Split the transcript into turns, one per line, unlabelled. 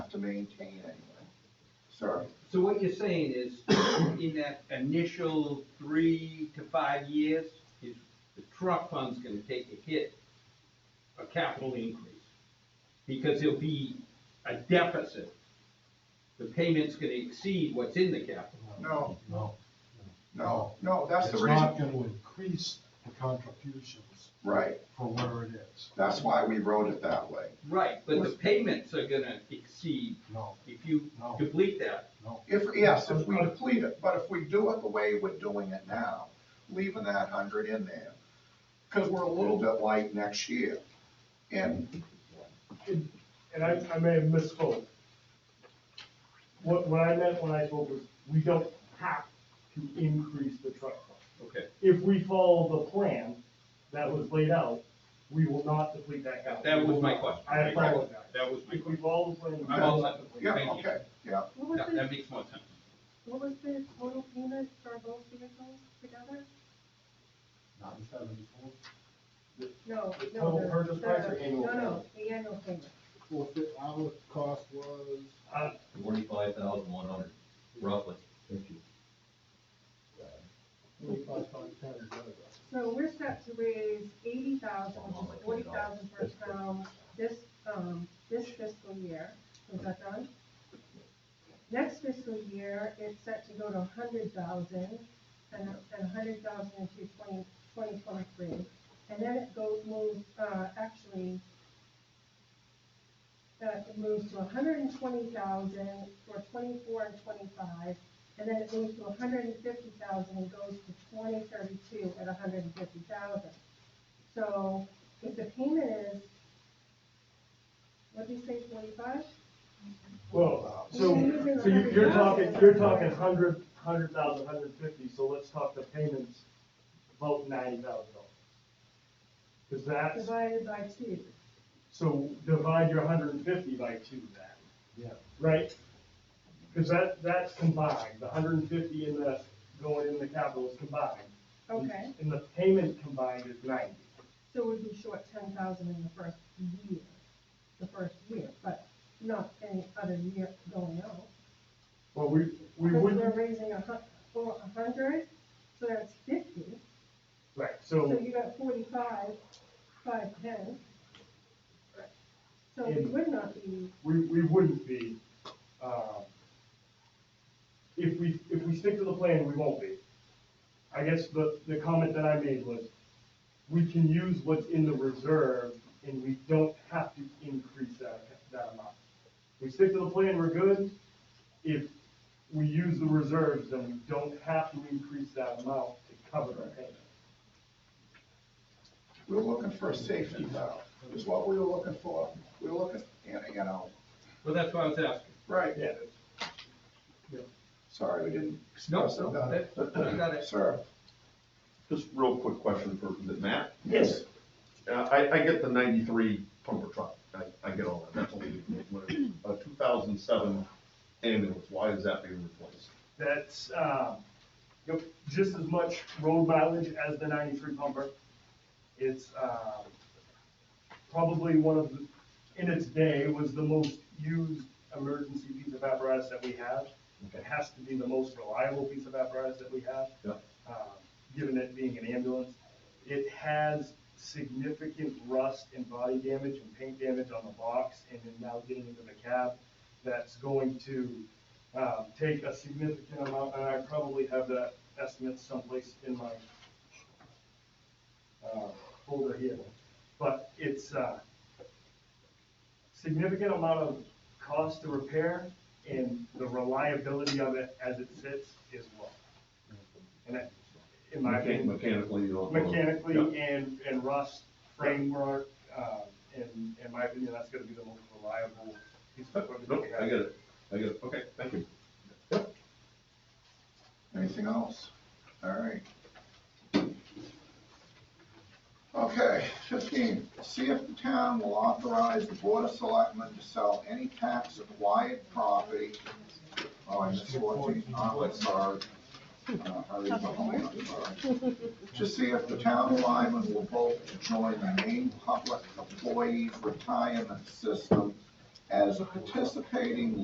maintain anyway. Sorry.
So what you're saying is, in that initial three to five years, is the truck fund's gonna take a hit, a capital increase, because there'll be a deficit. The payment's gonna exceed what's in the capital.
No,
No.
no, no, that's the
It's
reason,
not gonna increase the contributions
right,
for where it is,
that's why we wrote it that way.
Right, but the payments are gonna exceed,
no,
if you
No.
complete that,
no.
If, yes, if we deplete it, but if we do it the way we're doing it now, leaving that hundred in there, because we're a little bit light next year. And
and I, I may have misspoke. What, what I meant when I spoke was, we don't have to increase the truck fund.
okay,
If we follow the plan that was laid out, we will not deplete that capital.
that was my question.
I apologize.
That was my
If we
question.
follow the plan. we will
I'm all
not
set.
deplete.
Yeah,
Thank you.
okay, yeah.
What was
That,
the,
that makes more sense.
what was the total payment for both vehicles together?
Not in seventy-four.
No,
The
no,
total
the.
purchase price or
the-
annual
No, no,
payment?
the annual payment.
Well, if it- our cost was,
Uh,
forty-five thousand one hundred, roughly.
forty-five, five, ten, is that it?
So we're set to raise eighty thousand, which is forty thousand per town this, um, this fiscal year. Is that done? Next fiscal year, it's set to go to a hundred thousand and, and a hundred thousand into twenty, twenty twenty-three. And then it goes, moves, uh, actually, uh, it moves to a hundred and twenty thousand for twenty-four and twenty-five. And then it moves to hundred and fifty thousand and goes to twenty thirty-two at hundred and fifty thousand. So if the payment is, what do you say, forty-five?
Well, so,
We're using
so you- you're
100,000.
talking, you're talking hundred, hundred thousand, hundred fifty, so let's talk the payments, about ninety thousand dollars. Cause that's,
Divided by two.
so divide your hundred and fifty by two then.
Yeah.
Right? Cause that, that's combined, the hundred and fifty and the, going in the capital is combined. Mm-hmm.
Okay,
And the payment combined is ninety.
so we'd be short ten thousand in the first year, the first year, but not any other year going on.
Well, we, we
Because
wouldn't,
we're raising a hun, for a hundred, so that's fifty,
right,
so
so,
you got forty-five, five ten. So we
And-
would not be
we, we wouldn't be, um, if we, if we stick to the plan, we won't be. I guess the, the comment that I made was, we can use what's in the reserve, and we don't have to increase that, that amount. We stick to the plan, we're good. If we use the reserves, then we don't have to increase that amount to cover our payment.
We were looking for a safety valve, is what we were looking for. We were looking, you know, you know,
Well, that's what I was asking.
right,
Yeah.
sorry, we didn't
No,
express it.
no, that, I got it.
Sir,
Just real quick question for is it Matt.
Yes.
Uh, I, I get the ninety-three pumper truck. I, I get all that. That's only a two thousand seven ambulance. Why is that being replaced?
That's, uh, yep, just as much road mileage as the ninety-three pumper. It's, uh, probably one of, the- in its day, was the most used emergency piece of apparatus that we have. It has to be the most reliable piece of apparatus that we have.
Yep.
uh, Given it being an ambulance, it has significant rust and body damage and paint damage on the box and then now getting into the cab. That's going to, um, take a significant amount, and I probably have that estimate someplace in my uh, folder here, but it's uh, a significant amount of cost to repair, and the reliability of it as it sits is low. And that, in my
Mechan-
opinion,
Mechanically, you don't.
mechanically
Yeah.
and, and rust framework, uh, in, in my opinion, that's gonna be the most reliable piece of equipment that
Nope,
we
I
have.
get it. I get it. Okay, thank you. Yep.
anything else? All right. Okay, fifteen, see if the town will authorize the board of selectmen to sell any tax acquired property. Oh, I missed fourteen, oh, I'm sorry. Uh, hurry up, I'm sorry. To see if the town of Lyman will vote to join the main public employees retirement system as a participating